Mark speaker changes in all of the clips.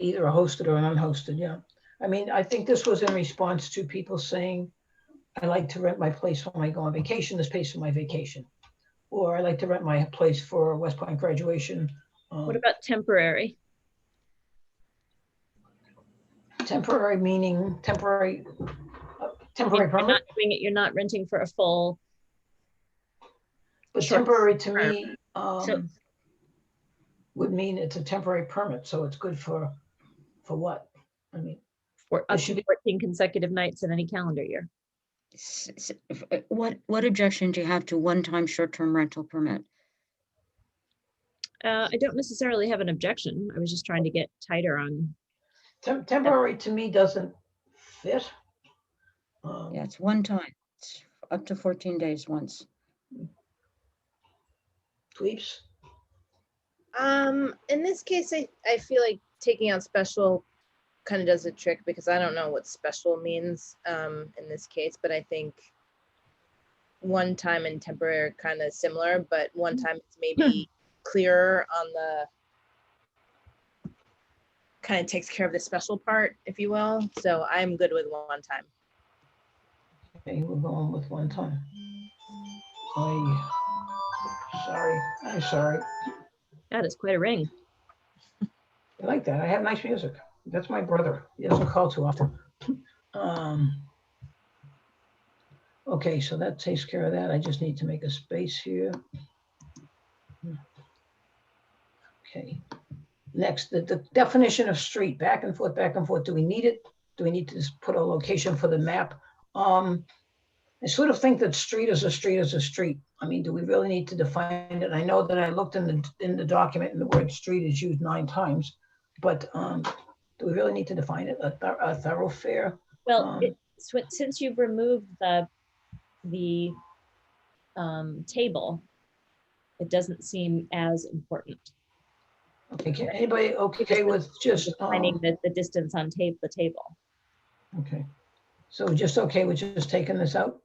Speaker 1: either a hosted or an unhosted, yeah. I mean, I think this was in response to people saying, I like to rent my place when I go on vacation, this pays for my vacation. Or I like to rent my place for West Point graduation. um,
Speaker 2: What about temporary?
Speaker 1: Temporary meaning temporary, uh,
Speaker 2: You're
Speaker 1: temporary
Speaker 2: not
Speaker 1: permit,
Speaker 2: doing it, you're not renting for a full,
Speaker 1: but
Speaker 2: short
Speaker 1: temporary to me
Speaker 2: So-
Speaker 1: um, would mean it's a temporary permit, so it's good for, for what? I mean,
Speaker 2: for
Speaker 1: It
Speaker 2: up
Speaker 1: should
Speaker 2: to
Speaker 1: be-
Speaker 2: fourteen consecutive nights in any calendar year.
Speaker 3: S- s- f- uh, What, what objection do you have to one-time short-term rental permit?
Speaker 2: Uh, I don't necessarily have an objection. I was just trying to get tighter on,
Speaker 1: tem- temporary to me doesn't fit. Um,
Speaker 3: Yeah, it's one time. It's up to 14 days once.
Speaker 1: Tweeps,
Speaker 4: Um, in this case, I, I feel like taking out special kind of does a trick because I don't know what special means um, in this case, but I think one time and temporary are kind of similar, but one time it's maybe clearer on the kind of takes care of the special part, if you will. So I'm good with one time.
Speaker 1: okay, we're going with one time. I, sorry, I'm sorry.
Speaker 2: that is quite a ring.
Speaker 1: I like that. I have nice music. That's my brother. He doesn't call too often. Um, okay, so that takes care of that. I just need to make a space here. Okay. Next, the, the definition of street, back and forth, back and forth. Do we need it? Do we need to just put a location for the map? Um, I sort of think that street is a street is a street. I mean, do we really need to define it? I know that I looked in the, in the document and the word street is used nine times, but um, do we really need to define it? A thor- a thoroughfare?
Speaker 2: Well,
Speaker 1: Um,
Speaker 2: it- swi- since you've removed the, the um, table, it doesn't seem as important.
Speaker 1: Okay, can anybody okay with just,
Speaker 2: Finding
Speaker 1: um,
Speaker 2: the, the distance on tape, the table.
Speaker 1: okay. So just okay with just taking this out?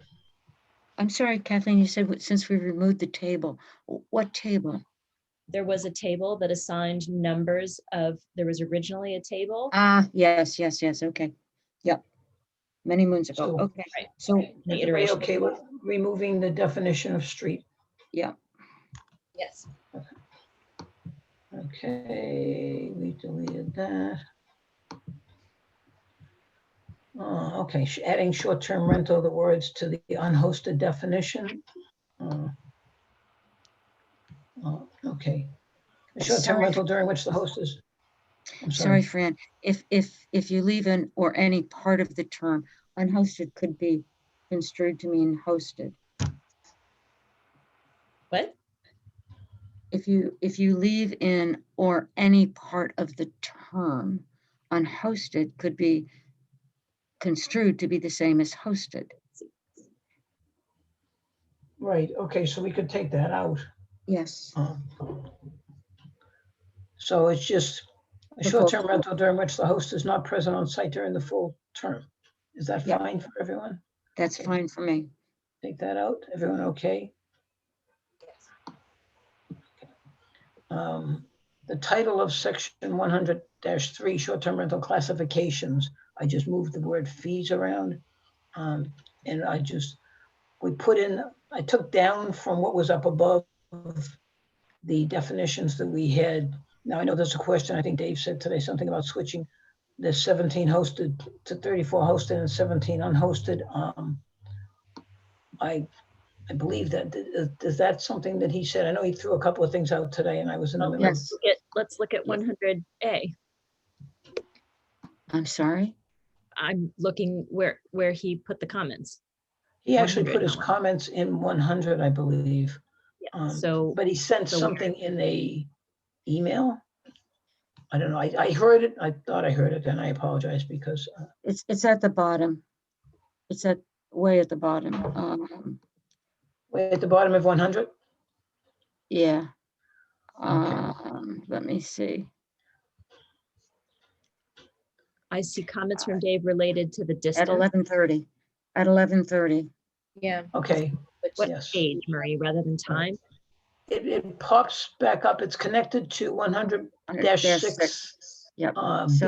Speaker 3: I'm sorry, Kathleen, you said, what- since we removed the table, W- what table?
Speaker 2: There was a table that assigned numbers of, there was originally a table.
Speaker 3: Ah, yes, yes, yes, okay. Yep. Many moons ago,
Speaker 1: So-
Speaker 3: okay.
Speaker 2: Right.
Speaker 3: So,
Speaker 2: the
Speaker 1: Anybody
Speaker 2: iteration.
Speaker 1: okay with removing the definition of street?
Speaker 4: Yes.
Speaker 1: Okay, we deleted that. Uh, okay, sh- adding short-term rental, the words to the unhosted definition. Uh, uh, Okay. A Short-term
Speaker 3: Sorry.
Speaker 1: rental during which the host is. I'm
Speaker 3: sorry, Fran, if, if, if you leave in or any part of the term, unhosted could be construed to mean hosted.
Speaker 2: What?
Speaker 3: if you if you leave in or any part of the term unhosted could be construed to be the same as hosted
Speaker 1: Right, okay, so we could take that out.
Speaker 3: yes
Speaker 1: Uh, So it's just a
Speaker 3: The full
Speaker 1: short-term
Speaker 3: term.
Speaker 1: rental during which the host is not present on site during the full term. Is that
Speaker 3: Yeah.
Speaker 1: fine for everyone?
Speaker 3: that's fine for me
Speaker 1: Take that out. Everyone okay? Um, The title of section one hundred three, short-term rental classifications, I just moved the word fees around. Um, and I just, we put in, I took down from what was up above the definitions that we had. Now, I know there's a question, I think Dave said today something about switching the seventeen hosted to thirty-four hosted and seventeen unhosted. Um, I, I believe that, is- is that something that he said? I know he threw a couple of things out today and I was in the middle of
Speaker 3: yes
Speaker 2: Get- Let's look at one hundred A.
Speaker 3: i'm sorry
Speaker 2: I'm looking where, where he put the comments.
Speaker 1: He actually
Speaker 2: 100
Speaker 1: put his
Speaker 2: now.
Speaker 1: comments in one hundred, I believe,
Speaker 2: Yeah,
Speaker 1: Um,
Speaker 2: so.
Speaker 1: but he sent
Speaker 2: So-
Speaker 1: something in a email. I don't know, I, I heard it, I thought I heard it, and I apologize because, uh,
Speaker 3: it's it's at the bottom it's at way at the bottom um
Speaker 1: way at the bottom of one hundred,
Speaker 3: yeah um let me see
Speaker 2: I see comments
Speaker 1: uh,
Speaker 2: from Dave related to the
Speaker 3: at
Speaker 2: distance.
Speaker 3: 11:30 at 11:30
Speaker 4: Yeah.
Speaker 1: okay.
Speaker 4: Which
Speaker 2: What
Speaker 1: yes. Uh,
Speaker 2: age, Marie, rather than time?
Speaker 1: It, it pops back up, it's connected to one hundred dash
Speaker 3: dash six.
Speaker 1: six.
Speaker 3: Yep.
Speaker 1: Uh,
Speaker 3: So